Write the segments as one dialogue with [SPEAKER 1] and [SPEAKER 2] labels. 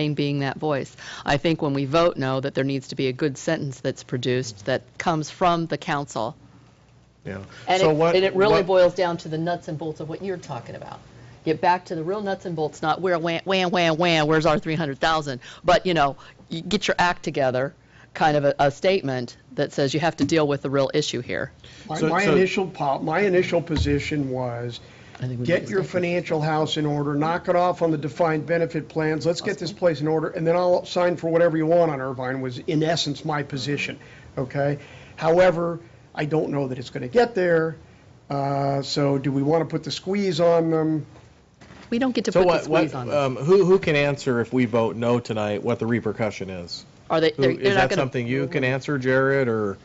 [SPEAKER 1] Maine being that voice. I think when we vote no, that there needs to be a good sentence that's produced that comes from the council.
[SPEAKER 2] Yeah.
[SPEAKER 1] And
[SPEAKER 2] So
[SPEAKER 1] it,
[SPEAKER 2] what-
[SPEAKER 1] and it really
[SPEAKER 2] what-
[SPEAKER 1] boils down to the nuts and bolts of what you're talking about. Get back to the real nuts and bolts, not where wham, wham, wham, wham, where's our 300,000? But, you know, you get your act together, kind of a, a statement that says you have to deal with the real issue here.
[SPEAKER 2] So-
[SPEAKER 3] My- My
[SPEAKER 2] so-
[SPEAKER 3] initial, po- my initial position was,
[SPEAKER 1] think we need
[SPEAKER 3] get
[SPEAKER 1] to
[SPEAKER 3] your
[SPEAKER 1] stop it.
[SPEAKER 3] financial house in order, knock it off on the defined benefit plans, let's get this place in order, and then I'll sign for whatever you want on Irvine, was in essence my position, okay? However, I don't know that it's going to get there, uh, so do we want to put the squeeze on them?
[SPEAKER 1] We don't get to
[SPEAKER 2] So
[SPEAKER 1] put the
[SPEAKER 2] what,
[SPEAKER 1] squeeze
[SPEAKER 2] what,
[SPEAKER 1] on them.
[SPEAKER 2] um, who, who can answer if we vote no tonight, what the repercussion is?
[SPEAKER 1] Are they,
[SPEAKER 2] Who,
[SPEAKER 1] they're
[SPEAKER 2] is
[SPEAKER 1] they're
[SPEAKER 2] that
[SPEAKER 1] not Mm-hmm. going to.
[SPEAKER 2] something you can answer, Jared, or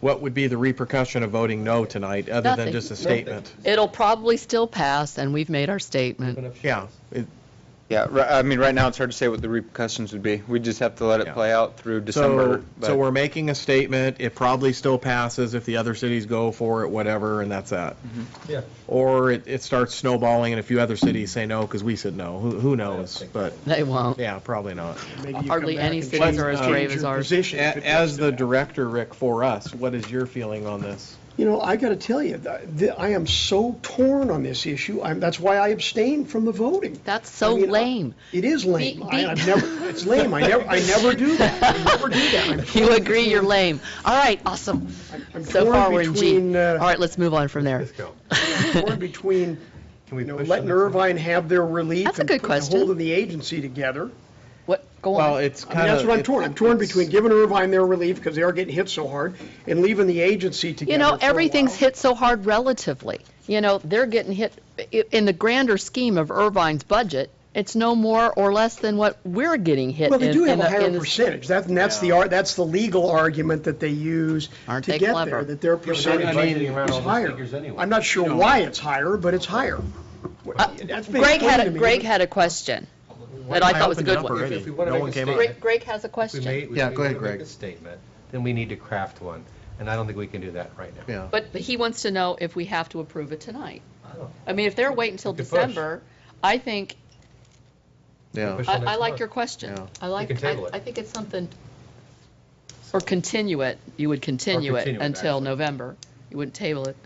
[SPEAKER 2] what would be the repercussion of voting no tonight, other than
[SPEAKER 1] Nothing.
[SPEAKER 2] just a statement?
[SPEAKER 1] It'll probably still pass, and we've made our statement.
[SPEAKER 2] Yeah, it-
[SPEAKER 4] Yeah, ri- I mean, right now, it's hard to say what the repercussions would be. We just have to let
[SPEAKER 2] Yeah.
[SPEAKER 4] it play out through December.
[SPEAKER 2] so,
[SPEAKER 4] but-
[SPEAKER 2] so we're making a statement, it probably still passes if the other cities go for it, whatever, and that's that.
[SPEAKER 5] Yeah.
[SPEAKER 2] Or it, it starts snowballing and a few other cities say no because we said no, who, who knows, but,
[SPEAKER 1] They won't.
[SPEAKER 2] yeah, probably not.
[SPEAKER 3] Maybe you come
[SPEAKER 1] Hardly
[SPEAKER 3] back
[SPEAKER 1] any
[SPEAKER 3] and
[SPEAKER 1] cities
[SPEAKER 3] change-
[SPEAKER 1] are as
[SPEAKER 3] change
[SPEAKER 1] brave as
[SPEAKER 3] your
[SPEAKER 1] ours.
[SPEAKER 3] position if it
[SPEAKER 2] A-
[SPEAKER 3] gets
[SPEAKER 2] As
[SPEAKER 3] to
[SPEAKER 2] the
[SPEAKER 3] that.
[SPEAKER 2] director, Rick, for us, what is your feeling on this?
[SPEAKER 3] You know, I got to tell you, th- th- I am so torn on this issue. I'm, that's why I abstained from the voting.
[SPEAKER 1] That's so
[SPEAKER 2] uh,
[SPEAKER 3] I mean, I-
[SPEAKER 1] lame.
[SPEAKER 3] It is lame.
[SPEAKER 1] Be-
[SPEAKER 3] I,
[SPEAKER 1] be-
[SPEAKER 3] I've never, it's lame. I never, I never do that. I never do that. I'm
[SPEAKER 1] You agree, you're lame. All right, awesome.
[SPEAKER 3] I'm
[SPEAKER 1] So far, we're
[SPEAKER 3] torn
[SPEAKER 1] in G.
[SPEAKER 3] between,
[SPEAKER 1] All
[SPEAKER 3] uh,
[SPEAKER 1] right, let's move on from there.
[SPEAKER 3] torn between,
[SPEAKER 2] Can we
[SPEAKER 3] you know,
[SPEAKER 2] push
[SPEAKER 3] letting
[SPEAKER 2] the next one?
[SPEAKER 3] Irvine have their relief.
[SPEAKER 1] That's a
[SPEAKER 3] and
[SPEAKER 1] good
[SPEAKER 3] putting the
[SPEAKER 1] question.
[SPEAKER 3] Holding the agency together.
[SPEAKER 1] What, go on.
[SPEAKER 2] Well, it's
[SPEAKER 3] I mean,
[SPEAKER 2] kind of.
[SPEAKER 3] that's what I'm torn. I'm torn between giving Irvine their relief because they are getting hit so hard and leaving the agency together.
[SPEAKER 1] You know,
[SPEAKER 3] for a
[SPEAKER 1] everything's
[SPEAKER 3] while.
[SPEAKER 1] hit so hard relatively. You know, they're getting hit, i- in the grander scheme of Irvine's budget, it's no more or less than what we're getting hit in.
[SPEAKER 3] Well, they do have
[SPEAKER 1] in
[SPEAKER 3] a higher
[SPEAKER 1] in
[SPEAKER 3] percentage. That, and that's the, ar- that's the legal argument that they use
[SPEAKER 1] Aren't
[SPEAKER 3] to
[SPEAKER 1] they
[SPEAKER 3] get
[SPEAKER 1] clever?
[SPEAKER 3] there, that their
[SPEAKER 5] I
[SPEAKER 3] percentage
[SPEAKER 5] mean, around
[SPEAKER 3] is
[SPEAKER 5] all those
[SPEAKER 3] higher.
[SPEAKER 5] figures anyway.
[SPEAKER 3] I'm not sure why it's higher, but it's higher. That's been
[SPEAKER 1] Uh, Greg had,
[SPEAKER 3] explained to
[SPEAKER 1] a
[SPEAKER 3] me,
[SPEAKER 1] Greg
[SPEAKER 3] but-
[SPEAKER 1] had a question that I thought was a
[SPEAKER 2] opened it
[SPEAKER 1] good
[SPEAKER 2] up
[SPEAKER 1] one.
[SPEAKER 2] already.
[SPEAKER 5] If we wanna
[SPEAKER 2] No
[SPEAKER 5] make
[SPEAKER 2] one
[SPEAKER 5] a
[SPEAKER 2] came up.
[SPEAKER 5] statement-
[SPEAKER 1] Greg, Greg has a
[SPEAKER 5] If we
[SPEAKER 1] question.
[SPEAKER 5] made- if
[SPEAKER 2] Yeah,
[SPEAKER 5] we
[SPEAKER 2] go ahead,
[SPEAKER 5] wanna make
[SPEAKER 2] Greg.
[SPEAKER 5] a statement, then we need to craft one, and I don't think we can do that right now.
[SPEAKER 2] Yeah.
[SPEAKER 1] But he wants to know if we have to approve it tonight.
[SPEAKER 5] I don't-
[SPEAKER 1] I mean, if they're waiting until
[SPEAKER 5] We could push.
[SPEAKER 1] December, I think,
[SPEAKER 2] Yeah.
[SPEAKER 5] Push-
[SPEAKER 1] I,
[SPEAKER 5] Till
[SPEAKER 1] I
[SPEAKER 5] next
[SPEAKER 1] like
[SPEAKER 5] month.
[SPEAKER 1] your question.
[SPEAKER 2] Yeah.
[SPEAKER 1] I like,
[SPEAKER 5] can
[SPEAKER 1] I,
[SPEAKER 5] table it.
[SPEAKER 1] I think it's something, or continue it, you would continue it
[SPEAKER 5] continue it,
[SPEAKER 1] until
[SPEAKER 5] actually.
[SPEAKER 1] November. You wouldn't table it.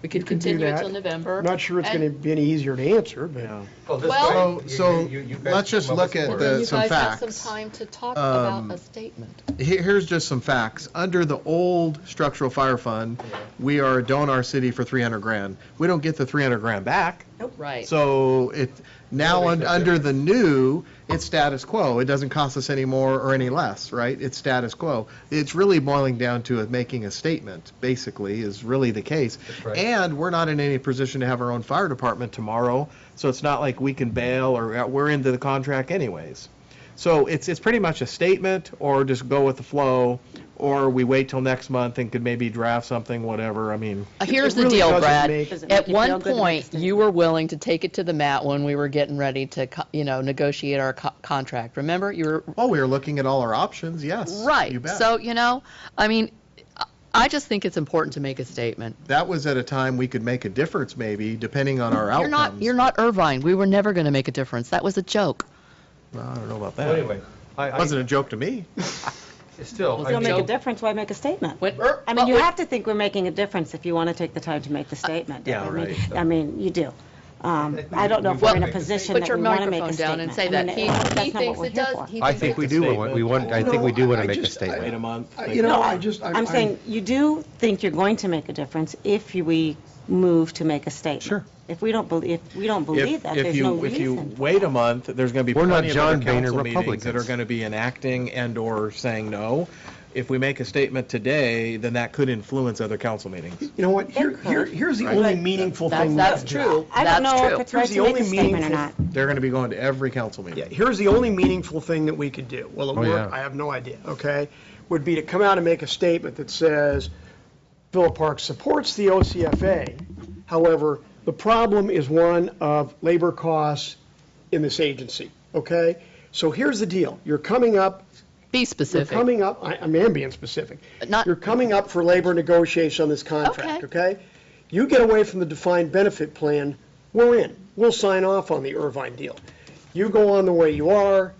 [SPEAKER 1] We could
[SPEAKER 3] You can do
[SPEAKER 1] continue it
[SPEAKER 3] that.
[SPEAKER 1] till November.
[SPEAKER 3] Not sure it's
[SPEAKER 1] and-
[SPEAKER 3] going to be any easier to answer, but.
[SPEAKER 2] Yeah.
[SPEAKER 5] Well, Oh, this
[SPEAKER 1] Well-
[SPEAKER 5] way, you-
[SPEAKER 6] So-
[SPEAKER 5] you- you guys
[SPEAKER 6] let's just
[SPEAKER 5] come
[SPEAKER 6] look
[SPEAKER 5] up with
[SPEAKER 6] at
[SPEAKER 5] some
[SPEAKER 6] the-
[SPEAKER 1] You
[SPEAKER 6] some
[SPEAKER 1] guys have some
[SPEAKER 6] facts.
[SPEAKER 1] time to talk about
[SPEAKER 6] Um,
[SPEAKER 1] a statement.
[SPEAKER 6] Here- Here's just some facts. Under the old structural fire fund, we are doing our city for 300 grand. We don't get the 300 grand back.
[SPEAKER 1] Right.
[SPEAKER 6] So it, now, un- under the new, it's status quo. It doesn't cost us any more or any less, right? It's status quo. It's really boiling down to it making a statement, basically, is really the case.
[SPEAKER 5] right.
[SPEAKER 6] And we're not in any position to have our own fire department tomorrow, so it's not like we can bail or, uh, we're into the contract anyways. So it's, it's pretty much a statement, or just go with the flow, or we wait till next month and could maybe draft something, whatever, I mean.
[SPEAKER 1] Uh, Here's
[SPEAKER 3] it
[SPEAKER 1] the
[SPEAKER 3] really
[SPEAKER 1] deal,
[SPEAKER 3] doesn't
[SPEAKER 1] Brad.
[SPEAKER 3] make- Does
[SPEAKER 7] it
[SPEAKER 1] At
[SPEAKER 7] make you feel
[SPEAKER 1] one
[SPEAKER 7] good to make
[SPEAKER 1] point,
[SPEAKER 7] a
[SPEAKER 1] you were willing to take it to the mat when we were getting ready to, co- you know, negotiate our co- contract. Remember, you were
[SPEAKER 6] Oh, we were looking at all our options, yes.
[SPEAKER 1] right.
[SPEAKER 6] you bet.
[SPEAKER 1] So you know, I mean, I- I just think it's important to make a statement.
[SPEAKER 6] that was at a time we could make a difference, maybe, depending on our
[SPEAKER 1] You're not,
[SPEAKER 6] outcomes.
[SPEAKER 1] you're not Irvine. We were never going to make a difference. That was a joke.
[SPEAKER 6] Well, I don't know about
[SPEAKER 5] Well,
[SPEAKER 6] that.
[SPEAKER 5] Anyway, I, I,
[SPEAKER 6] Wasn't a joke to me.
[SPEAKER 5] still,
[SPEAKER 1] Well,
[SPEAKER 5] I
[SPEAKER 1] they'll
[SPEAKER 7] Don't make
[SPEAKER 1] Joe-
[SPEAKER 7] a difference, why make a statement?
[SPEAKER 1] When Ir-
[SPEAKER 7] I mean,
[SPEAKER 1] but
[SPEAKER 7] you
[SPEAKER 1] when-
[SPEAKER 7] have to think we're making a difference if you want to take the time to make the statement.
[SPEAKER 6] Yeah,
[SPEAKER 7] I mean-
[SPEAKER 6] right.
[SPEAKER 7] I mean, you do. Um, I don't know if
[SPEAKER 5] Well,
[SPEAKER 7] we're in a
[SPEAKER 5] make a
[SPEAKER 7] position
[SPEAKER 1] Put
[SPEAKER 7] that
[SPEAKER 1] your
[SPEAKER 7] we want to make
[SPEAKER 1] microphone
[SPEAKER 7] a
[SPEAKER 1] down
[SPEAKER 7] statement.
[SPEAKER 1] and say
[SPEAKER 7] I
[SPEAKER 1] that.
[SPEAKER 7] mean,
[SPEAKER 1] He,
[SPEAKER 7] that's not
[SPEAKER 1] he
[SPEAKER 7] what
[SPEAKER 1] thinks
[SPEAKER 7] we're
[SPEAKER 1] it
[SPEAKER 7] here
[SPEAKER 1] does.
[SPEAKER 7] for.
[SPEAKER 1] he
[SPEAKER 5] I
[SPEAKER 1] thinks
[SPEAKER 5] think
[SPEAKER 1] it-
[SPEAKER 5] we do, want- we want, I think we do want to make
[SPEAKER 3] No, I
[SPEAKER 5] a
[SPEAKER 3] just-
[SPEAKER 2] Wait a
[SPEAKER 5] statement.
[SPEAKER 2] month.
[SPEAKER 7] Uh,
[SPEAKER 3] I-
[SPEAKER 2] they
[SPEAKER 3] uh, You know,
[SPEAKER 2] go-
[SPEAKER 3] I just.
[SPEAKER 7] I'm saying, you do think you're going to make a difference if you- we move to make a statement.
[SPEAKER 6] Sure.
[SPEAKER 7] If we don't believe, if we don't believe
[SPEAKER 6] If,
[SPEAKER 7] that,
[SPEAKER 6] if
[SPEAKER 7] there's no
[SPEAKER 6] you, if you
[SPEAKER 7] reason.
[SPEAKER 6] wait a month, there's going to be
[SPEAKER 5] We're not
[SPEAKER 6] plenty of other
[SPEAKER 5] John Boehner
[SPEAKER 6] council meetings that are
[SPEAKER 5] Republicans.
[SPEAKER 6] going to be enacting and/or saying no. If we make a statement today, then that could influence other council meetings.
[SPEAKER 3] You know what? Here,
[SPEAKER 7] It could.
[SPEAKER 3] here, here's the only meaningful
[SPEAKER 1] That's,
[SPEAKER 3] thing.
[SPEAKER 1] that's
[SPEAKER 3] left.
[SPEAKER 1] true.
[SPEAKER 7] I
[SPEAKER 1] That's
[SPEAKER 7] don't know
[SPEAKER 1] true.
[SPEAKER 7] if it's
[SPEAKER 3] Here's
[SPEAKER 7] right
[SPEAKER 3] the
[SPEAKER 7] to make
[SPEAKER 3] only
[SPEAKER 7] a statement or
[SPEAKER 3] meaningful-
[SPEAKER 7] not.
[SPEAKER 6] They're going to be going to every council
[SPEAKER 3] Yeah,
[SPEAKER 6] meeting.
[SPEAKER 3] here's the only meaningful thing that we could do. Will it
[SPEAKER 5] Oh,
[SPEAKER 3] work?
[SPEAKER 5] yeah.
[SPEAKER 3] I have no idea, okay? Would be to come out and make a statement that says, Philip Park supports the OCFA. However, the problem is one of labor costs in this agency, okay? So here's the deal. You're coming up,
[SPEAKER 1] Be
[SPEAKER 3] you're
[SPEAKER 1] specific.
[SPEAKER 3] coming up, I- I'm ambient specific.
[SPEAKER 1] Not-
[SPEAKER 3] You're coming up for labor negotiation on this contract,
[SPEAKER 1] Okay.
[SPEAKER 3] okay? You get away from the defined benefit plan, we're in. We'll sign off on the Irvine deal. you go on the way you are,